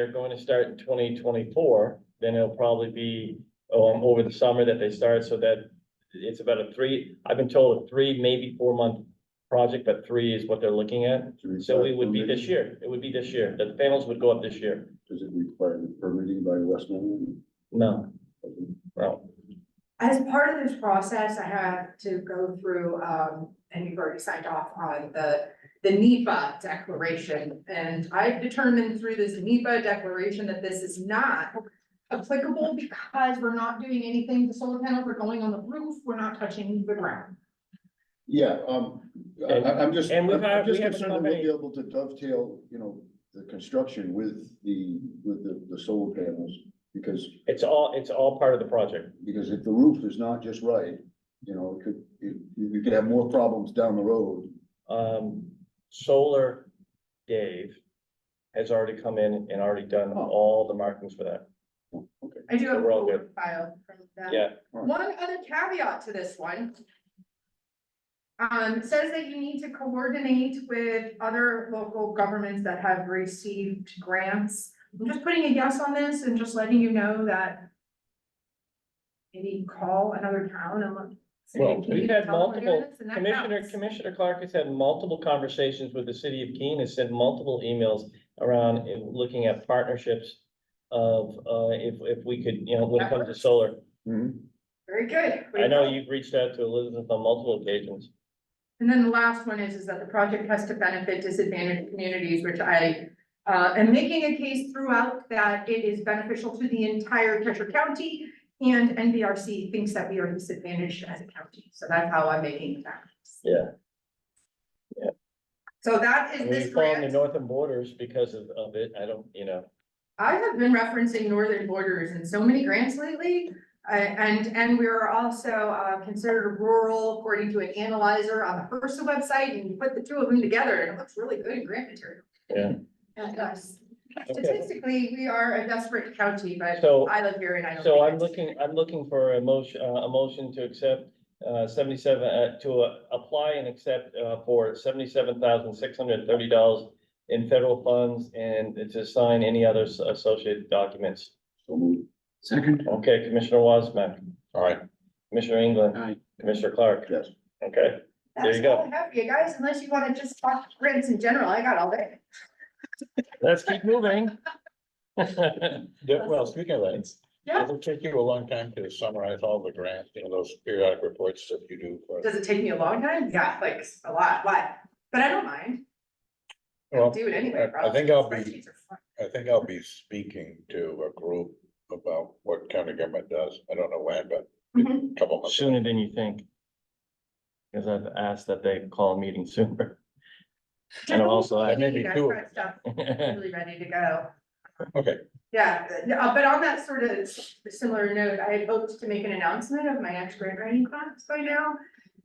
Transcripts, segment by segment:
they're going to start in twenty twenty-four, then it'll probably be, um, over the summer that they start, so that it's about a three, I've been told a three, maybe four-month project, but three is what they're looking at. Should we So start it would be this permitting? year, it would be this year, the panels would go up this year. Does it require permitting by Westmoreland? No, no, As part of this process, I had to go through, um, and you've already signed off on the, the NEPA declaration. And I've determined through this NEPA declaration that this is not applicable because we're not doing anything to solar panels, we're going on the roof, we're not touching the ground. Yeah, um, I, And- I- I'm just, and I'm we've had- I'm just we have a concerned that we'll be company- able to dovetail, you know, the construction with the, with the, the solar panels. Because, it's all, it's all part of the project. because if the roof is not just right, you know, it could, it, you could have more problems down the road. Um, solar, Dave has already come in and already done all the markings for that. I do have a We're all full good. file from that. Yeah, One other caveat to this one. Um, it says that you need to coordinate with other local governments that have received grants. I'm just putting a yes on this and just letting you know that. Maybe call another town and look. say, Well, "Can we've you had tell them we're doing multiple- this?" And that Commissioner, counts. Commissioner Clark has had multiple conversations with the city of Keene, has sent multiple emails around in looking at partnerships of, uh, if, if we could, you know, when it comes to solar. Mm-hmm. Very good. I know you've reached out to Elizabeth on multiple occasions. And then the last one is, is that the project has to benefit disadvantaged communities, which I uh, am making a case throughout that it is beneficial to the entire Cheshire County. And NVRC thinks that we are disadvantaged as a county, so that's how I'm making that. case. Yeah. Yeah. So that is And we this formed the grant. northern borders because of, of it. I don't, you know, I have been referencing northern borders in so many grants lately. uh, and, and we are also, uh, considered rural according to an analyzer on the HRSA website and you put the two of them together and it looks really good in grant material. Yeah. And us. okay. Statistically, we are a desperate county, but So, I live here and I don't. so think I'm it's- looking, I'm looking for a motion, uh, a motion to accept, uh, seventy-seven, uh, to uh, apply and accept, uh, for seventy-seven thousand, six hundred and thirty dollars in federal funds and to sign any other s- associated documents. So move. Second, Okay, Commissioner Wasback, all right, Commissioner England, Aye. Commissioner Clark, Yes. okay? there you That's go. all I have for you guys, unless you wanna just talk grants in general, I got all day. Let's keep moving. Yeah, well, speaking of that, Yeah. it'll take you a long time to summarize all the grants, you know, those periodic reports that you do for. Does it take me a long time? Yeah, like a lot, why? But I don't mind, I'll Well, do it anyway. I- I think probably. I'll be- Spreadsheets are fun. I think I'll be speaking to a group about what county government does. I don't know when, but Mhm. a couple months. Sooner than you think. Cause I've asked that they call a meeting sooner. And also, I- That may You be guys two. got stuff Really ready to go. Okay, Yeah, uh, but on that sort of similar note, I had hoped to make an announcement of my next grant writing class by now.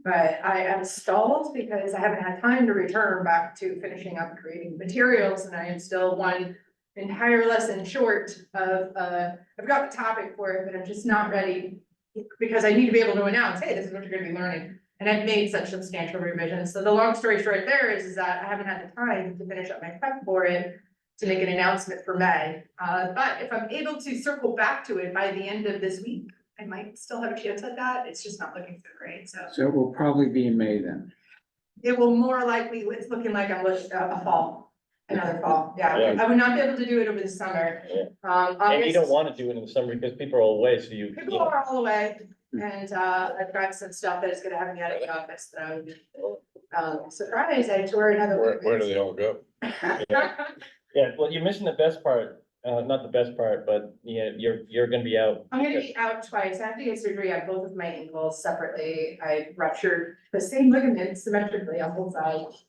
But I am stalled because I haven't had time to return back to finishing up creating materials and I am still one entire lesson short of, uh, I've got the topic for it, but I'm just not ready. Because I need to be able to announce, hey, this is what you're gonna be learning. And I've made such substantial revisions. So the long story short there is, is that I haven't had the time to finish up my prep for it to make an announcement for May. Uh, but if I'm able to circle back to it by the end of this week, I might still have a chance at that. It's just not looking so great, so. So it will probably be in May then. It will more likely, it's looking like I'm looking at a fall, another fall, yeah. Yeah. I would not be able to do it over the summer. Yeah. Um, And you don't August, wanna do it in the summer because people are away, so you. people are all away and, uh, I've got some stuff that is gonna have me out of the office, that I'm Um, surprised I tore another. where, where do they all go? Yeah, well, you're missing the best part, uh, not the best part, but yeah, you're, you're gonna be out. I'm gonna be out twice. I have to get surgery on both of my ankles separately. I ruptured the same ligament symmetrically on both sides.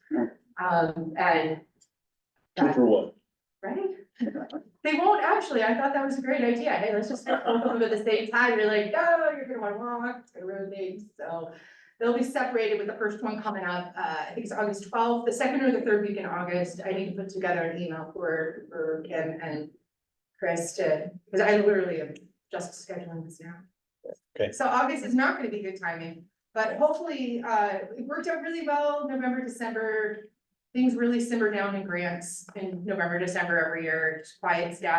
Um, and, uh, Two for one. right? They won't actually. I thought that was a great idea. Hey, let's just take both of them at the same time. You're like, no, you're gonna wanna walk, it's gonna ruin things. So they'll be separated with the first one coming up. Uh, I think it's August twelfth, the second or the third week in August. I need to put together an email for, for Kim and Chris to, because I literally am just scheduling this now. Okay. So August is not gonna be good timing, but hopefully, uh, it worked out really well, November, December. Things really simmer down in grants in November, December every year, it just quiets down.